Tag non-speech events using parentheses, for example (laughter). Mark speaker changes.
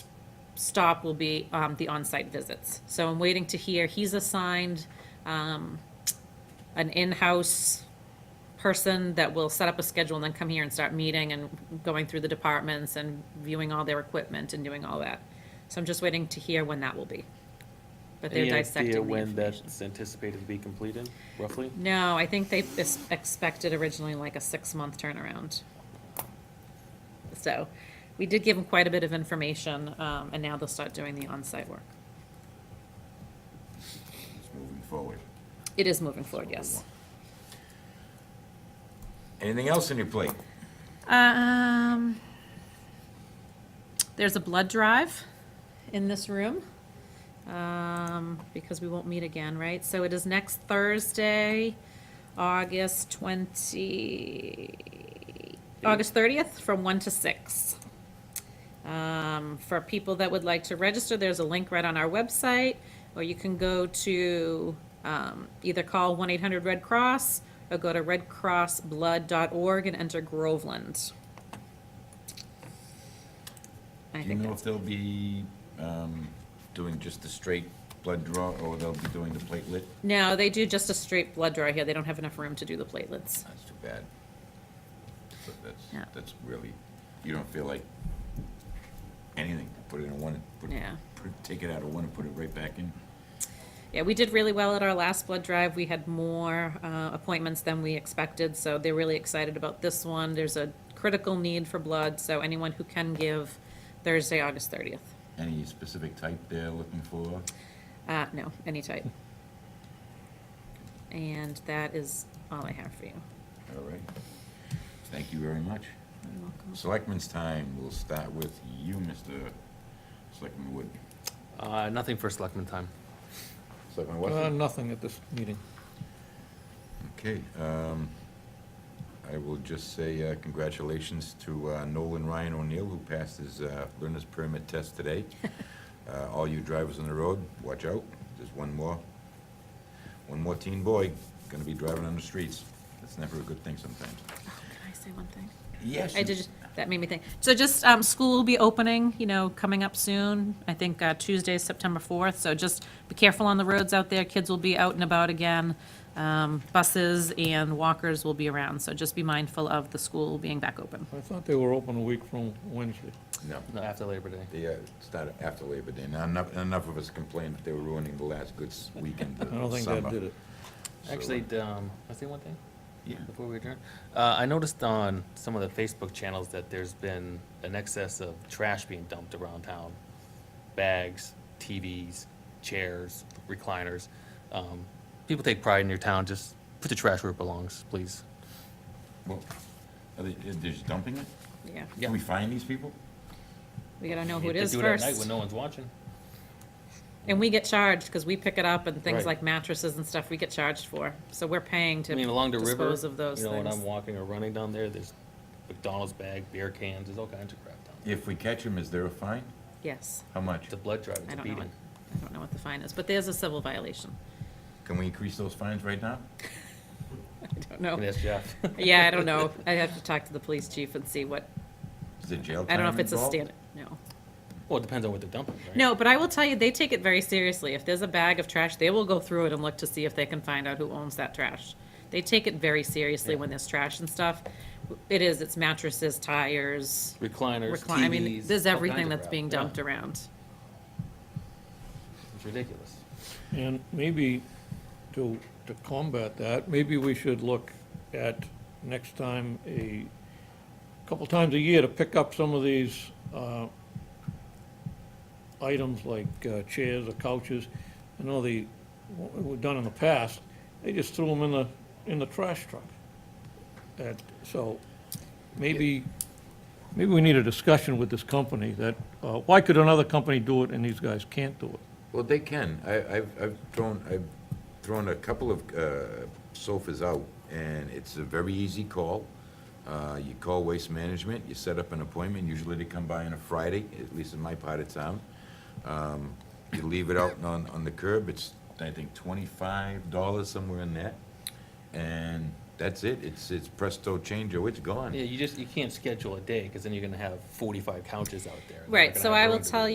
Speaker 1: stop will be um, the on-site visits. So I'm waiting to hear, he's assigned um, an in-house person that will set up a schedule and then come here and start meeting and going through the departments and viewing all their equipment and doing all that. So I'm just waiting to hear when that will be. But they're
Speaker 2: Any
Speaker 1: dissecting the
Speaker 2: idea when
Speaker 1: information.
Speaker 2: that's anticipated to be completed, roughly?
Speaker 1: No, I think they es- expected originally like a six-month turnaround. So, we did give them quite a bit of information, um, and now they'll start doing the on-site work.
Speaker 3: It's moving forward.
Speaker 1: It is moving forward, yes.
Speaker 3: Anything else on your plate?
Speaker 1: Um, there's a blood drive in this room, um, because we won't meet again, right? So it is next Thursday, August twenty, August thirtieth, from one to six. Um, for people that would like to register, there's a link right on our website, or you can go to, um, either call one eight hundred Red Cross or go to redcrossblood.org and enter Groveland. I
Speaker 3: Do you
Speaker 1: think
Speaker 3: know
Speaker 1: that's,
Speaker 3: if they'll be um, doing just the straight blood draw, or they'll be doing the platelet?
Speaker 1: no, they do just a straight blood draw here. They don't have enough room to do the platelets.
Speaker 3: That's too bad. But
Speaker 1: Yeah.
Speaker 3: that's, that's really, you don't feel like anything, put it in one, and put,
Speaker 1: Yeah.
Speaker 3: put- take it out of one and put it right back in.
Speaker 1: Yeah, we did really well at our last blood drive. We had more uh, appointments than we expected, so they're really excited about this one. There's a critical need for blood, so anyone who can give Thursday, August 30th.
Speaker 3: Any specific type they're looking for?
Speaker 1: Uh, no, any type. And that is all I have for you.
Speaker 3: All right. Thank you very much.
Speaker 1: You're welcome.
Speaker 3: Selectmen's time, we'll start with you, Mr. Selectman Wood.
Speaker 2: Uh, nothing for selectmen time.
Speaker 3: Selectman
Speaker 4: Uh,
Speaker 3: Wesson?
Speaker 4: nothing at this meeting.
Speaker 3: Okay, um, I will just say uh, congratulations to uh, Nolan Ryan O'Neill, who passed his uh, learner's permit test
Speaker 2: (laughs)
Speaker 3: today. Uh, All you drivers on the road, watch out, there's one more, one more teen boy gonna be driving on the streets. That's never a good thing sometimes.
Speaker 1: Oh, Can I say one thing?
Speaker 3: Yes.
Speaker 1: I did, that made me think. So just, um, school will be opening, you know, coming up soon. I think uh, Tuesday, is September 4th, so just be careful on the roads out there. Kids will be out and about again. Um, Buses and walkers will be around, so just be mindful of the school being back open.
Speaker 4: I thought they were open a week from Wednesday.
Speaker 3: No,
Speaker 2: No, after Labor Day.
Speaker 3: they uh, started after Labor Day. Now, enough, enough of us complained that they were ruining the last good s- weekend
Speaker 4: (laughs) I
Speaker 3: of
Speaker 4: don't think
Speaker 3: summer.
Speaker 4: that did it.
Speaker 3: So,
Speaker 2: Actually, d- um, I say one thing
Speaker 3: yeah.
Speaker 2: before we adjourn. Uh, I noticed on some of the Facebook channels that there's been an excess of trash being dumped around town. Bags, TVs, chairs, recliners. Um, people take pride in your town, just put the trash where it belongs, please.
Speaker 3: Well, are they, they're just dumping it?
Speaker 1: Yeah,
Speaker 2: Yeah.
Speaker 3: Can we find these people?
Speaker 1: we gotta know who it
Speaker 2: They
Speaker 1: is
Speaker 2: do at night
Speaker 1: first.
Speaker 2: When no one's watching.
Speaker 1: And we get charged, because we pick it up and things
Speaker 2: Right.
Speaker 1: like mattresses and stuff we get charged for. So we're paying to
Speaker 2: I mean, along the river,
Speaker 1: dispose of those
Speaker 2: you know, when I'm
Speaker 1: things.
Speaker 2: walking or running down there, there's McDonald's bag, beer cans, there's all kinds of crap down there.
Speaker 3: If we catch them, is there a fine?
Speaker 1: Yes,
Speaker 3: How much?
Speaker 2: It's a blood drive, it's
Speaker 1: I
Speaker 2: a
Speaker 1: don't know, what-
Speaker 2: beating.
Speaker 1: I don't know what the fine is, but there's a civil violation. (laughs)
Speaker 3: Can we increase those fines right now?
Speaker 1: I don't know.
Speaker 2: Can ask Jeff.
Speaker 1: Oh. (laughs) Yeah, I don't know. I'd have to talk to the police chief and see what,
Speaker 3: Is there jail
Speaker 1: I
Speaker 3: time
Speaker 1: don't know if it's a
Speaker 3: involved?
Speaker 1: standard, no.
Speaker 2: Well, it depends on what they're dumping, right?
Speaker 1: No, but I will tell you, they take it very seriously. If there's a bag of trash, they will go through it and look to see if they can find out who owns that trash. They take it very seriously when there's trash and stuff. It is, it's mattresses, tires,
Speaker 2: Recliners, TVs.
Speaker 1: recline, I mean, there's
Speaker 2: all
Speaker 1: everything
Speaker 2: kinds of
Speaker 1: that's
Speaker 2: crap,
Speaker 1: being
Speaker 2: yeah.
Speaker 1: dumped around.
Speaker 2: It's ridiculous.
Speaker 4: And maybe to, to combat that, maybe we should look at next time a, couple times a year to pick up some of these, uh, items like uh, chairs or couches. I know the, what we've done in the past, they just threw them in the, in the trash truck. And so maybe, maybe we need a discussion with this company that, uh, why could another company do it and these guys can't do it?
Speaker 3: Well, they can. I, I've, I've thrown, I've thrown a couple of, uh, sofas out, and it's a very easy call. Uh, you call Waste Management, you set up an appointment, usually they come by on a Friday, at least in my part of town. Um, you leave it out on, on the curb, it's, I think, twenty-five dollars, somewhere in that. And that's it. It's, it's presto changeo, it's gone.
Speaker 2: Yeah, you just, you can't schedule a day, because then you're gonna have forty-five couches out there. and they're not
Speaker 1: Right,
Speaker 2: gonna
Speaker 1: so
Speaker 2: have
Speaker 1: I
Speaker 2: room
Speaker 1: will
Speaker 2: to do
Speaker 1: tell
Speaker 2: it.